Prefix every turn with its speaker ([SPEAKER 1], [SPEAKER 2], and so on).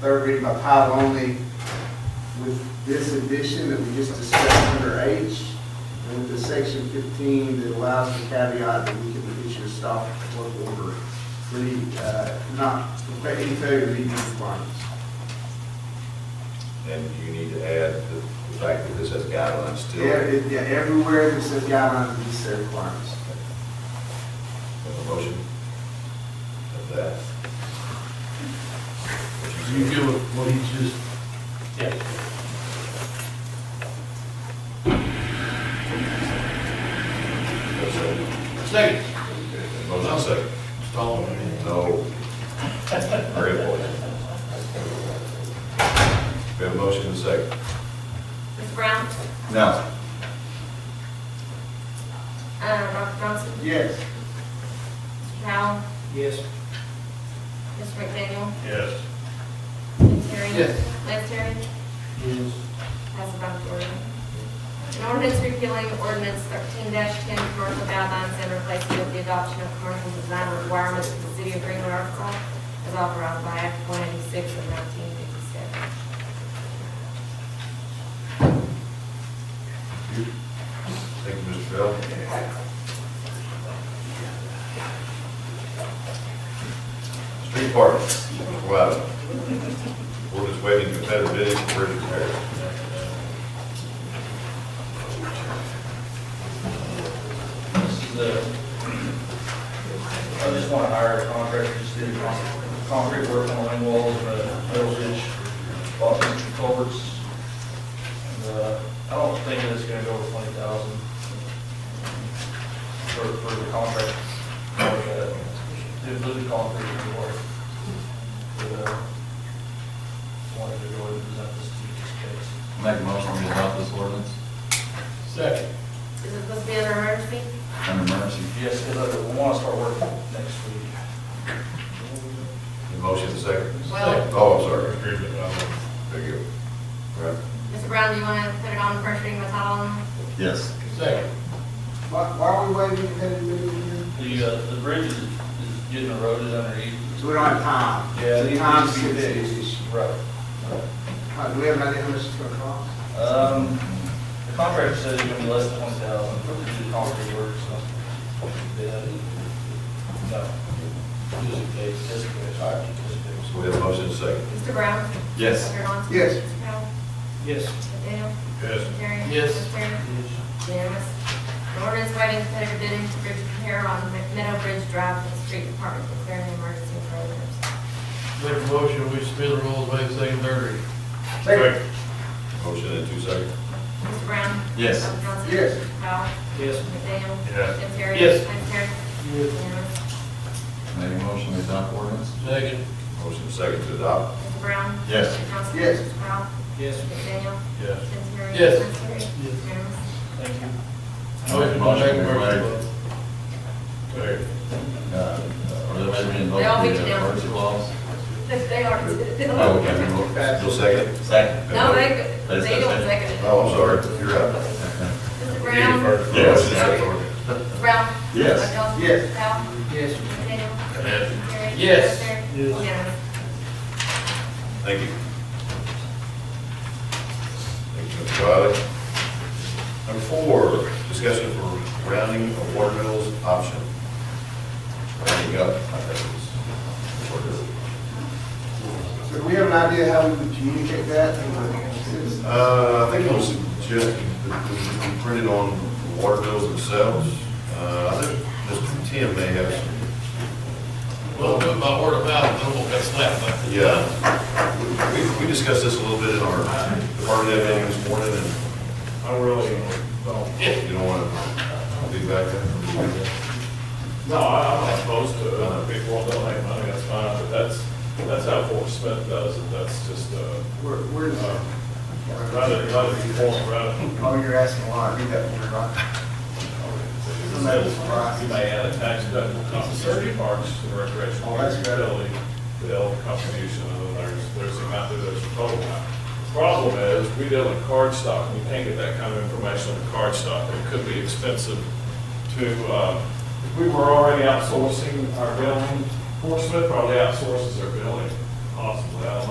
[SPEAKER 1] third reading by title only with this addition that we just discussed under H, and with the section fifteen that allows the caveat that we can issue a stop work order for the, uh, not, for any failure to meet these requirements.
[SPEAKER 2] And you need to add the the fact that this has guidelines
[SPEAKER 1] Yeah,
[SPEAKER 2] still.
[SPEAKER 1] it- yeah, everywhere that says guidelines, these set requirements.
[SPEAKER 2] Have a motion of that.
[SPEAKER 3] Are you good with what he just? Yes. Second.
[SPEAKER 2] Motion second.
[SPEAKER 3] Stall.
[SPEAKER 2] No. Very important. We have a motion and a second.
[SPEAKER 4] Ms. Brown?
[SPEAKER 2] No.
[SPEAKER 4] Uh, Dr. Johnson?
[SPEAKER 1] Yes.
[SPEAKER 4] Mr. Powell?
[SPEAKER 3] Yes.
[SPEAKER 4] Ms. McDaniel?
[SPEAKER 3] Yes.
[SPEAKER 4] Ms. Terry?
[SPEAKER 1] Yes.
[SPEAKER 4] Lance Terry?
[SPEAKER 3] Yes.
[SPEAKER 4] Pass it by majority. An ordinance repealing ordinance thirteen ten, commercial guidelines and replacing with the adoption of commercial design requirements for the city of Greenwood, Arkansas, as authorized by Act one eighty-six of nineteen fifty-seven.
[SPEAKER 2] Thank you, Mr. Bell. Street parking, Mr. Wiley. We're just waiting for better bidding for it to prepare.
[SPEAKER 5] This is the, I just want to hire a contractor, just did con- concrete work on the wing walls, the metal ditch, bought some extra culverts. And, uh, I don't think that it's gonna go over twenty thousand for, for the contract. Uh, Did blue concrete before. But, uh, wanted to go ahead and present this to you just in case.
[SPEAKER 6] Make a motion to adopt this ordinance
[SPEAKER 3] Second.
[SPEAKER 4] Is it supposed to be under emergency?
[SPEAKER 6] under emergency.
[SPEAKER 5] Yes, because I want to start working next week.
[SPEAKER 2] The motion and second.
[SPEAKER 4] Well-
[SPEAKER 2] Oh, I'm sorry. There you go. All right.
[SPEAKER 4] Mr. Brown, do you want to put it on first reading by title only?
[SPEAKER 6] Yes.
[SPEAKER 3] Second.
[SPEAKER 1] Why, why are we waiting for that to be here?
[SPEAKER 5] The, uh, the bridge is, is getting eroded underneath.
[SPEAKER 1] So we don't have time.
[SPEAKER 5] Yeah,
[SPEAKER 1] So
[SPEAKER 5] it
[SPEAKER 1] Time
[SPEAKER 5] needs to be
[SPEAKER 1] sensitive
[SPEAKER 5] fixed.
[SPEAKER 1] issue.
[SPEAKER 5] Right.
[SPEAKER 1] Uh, Do we have an idea how much it's gonna cost?
[SPEAKER 5] Um, the contractor said it's gonna be less than twenty thousand, probably do the concrete work, so. Yeah. No. Just in case. Just in case. All right, just in case.
[SPEAKER 2] So we have a motion and second.
[SPEAKER 4] Mr. Brown?
[SPEAKER 6] Yes.
[SPEAKER 4] Dr. Johnson?
[SPEAKER 1] Yes.
[SPEAKER 4] Mr. Powell?
[SPEAKER 3] Yes.
[SPEAKER 4] McDaniel?
[SPEAKER 2] Yes.
[SPEAKER 4] Terry?
[SPEAKER 3] Yes.
[SPEAKER 4] Ms. Terry? Unanimous. An ordinance waiting competitive bidding for bridge repair on Meadow Bridge Drive for the street department declaring an emergency for others.
[SPEAKER 3] Make a motion, we suspend the rules, waive the second, third reading.
[SPEAKER 2] Motion in two seconds.
[SPEAKER 4] Mr. Brown?
[SPEAKER 6] Yes.
[SPEAKER 4] Dr. Johnson?
[SPEAKER 1] Yes.
[SPEAKER 4] Powell?
[SPEAKER 3] Yes.
[SPEAKER 4] McDaniel?
[SPEAKER 2] Yes.
[SPEAKER 4] Tim Terry?
[SPEAKER 3] Yes.
[SPEAKER 4] Lance Terry? Unanimous.
[SPEAKER 6] Make a motion to adopt ordinance.
[SPEAKER 3] Second.
[SPEAKER 2] Motion and second to adopt.
[SPEAKER 4] Mr. Brown?
[SPEAKER 6] Yes.
[SPEAKER 4] Dr. Johnson?
[SPEAKER 1] Yes.
[SPEAKER 4] Powell?
[SPEAKER 3] Yes.
[SPEAKER 4] McDaniel?
[SPEAKER 2] Yes.
[SPEAKER 4] Tim Terry?
[SPEAKER 3] Yes.
[SPEAKER 4] Lance Terry?
[SPEAKER 3] Yes.
[SPEAKER 4] Unanimous.
[SPEAKER 5] Thank you.
[SPEAKER 3] Motion to make emergency.
[SPEAKER 6] Uh, Or that may be
[SPEAKER 4] They all beat you
[SPEAKER 6] invoked in the
[SPEAKER 4] down.
[SPEAKER 6] emergency clause.
[SPEAKER 4] They are.
[SPEAKER 6] Oh, okay.
[SPEAKER 2] Still second?
[SPEAKER 6] Second.
[SPEAKER 4] No, they,
[SPEAKER 6] They
[SPEAKER 4] they don't
[SPEAKER 6] said-
[SPEAKER 4] second it.
[SPEAKER 2] Oh, I'm sorry. You're up.
[SPEAKER 1] Oh.
[SPEAKER 4] Mr. Brown?
[SPEAKER 2] Yes.
[SPEAKER 4] Brown? Dr.
[SPEAKER 6] Yes.
[SPEAKER 4] Johnson?
[SPEAKER 1] Yes.
[SPEAKER 3] Yes.
[SPEAKER 4] Powell? Yes.
[SPEAKER 3] Yes.
[SPEAKER 4] Yes.
[SPEAKER 2] Thank you. Thank you, Mr. Riley. Number four, discussion for rounding of water bills option. Rounding up, I think is what it is.
[SPEAKER 1] So do we have an idea how we would communicate that to the citizens?
[SPEAKER 2] Uh, I think I'll suggest that we- we print it on the water bills themselves. Uh, I think Mr. Tim may have some
[SPEAKER 3] Well, do it by word of mouth, then we'll get slapped. by-
[SPEAKER 2] Yeah, we, we discussed this a little bit in our department head meeting this morning, and. I really don't. You don't want to be back there?
[SPEAKER 7] No, I- I'm not opposed to it. If people donate money, that's fine, but that's, that's how Fort Smith does it. That's just, uh,
[SPEAKER 1] Where, where is
[SPEAKER 7] uh,
[SPEAKER 1] that?
[SPEAKER 7] right at, right at the point, right at.
[SPEAKER 1] Oh, you're asking why, I read that one, right? Somebody was surprised.
[SPEAKER 7] You may add a tax deductible compensation parks and recreational
[SPEAKER 1] Oh, that's good.
[SPEAKER 7] utility, bill contribution, and then there's, there's the amount that there's a total amount. The Problem is, we deal in card stock, and you can't get that kind of information on card stock. It could be expensive to, uh, if we were already outsourcing our billing, Fort Smith probably outsources their billing, possibly, I don't know.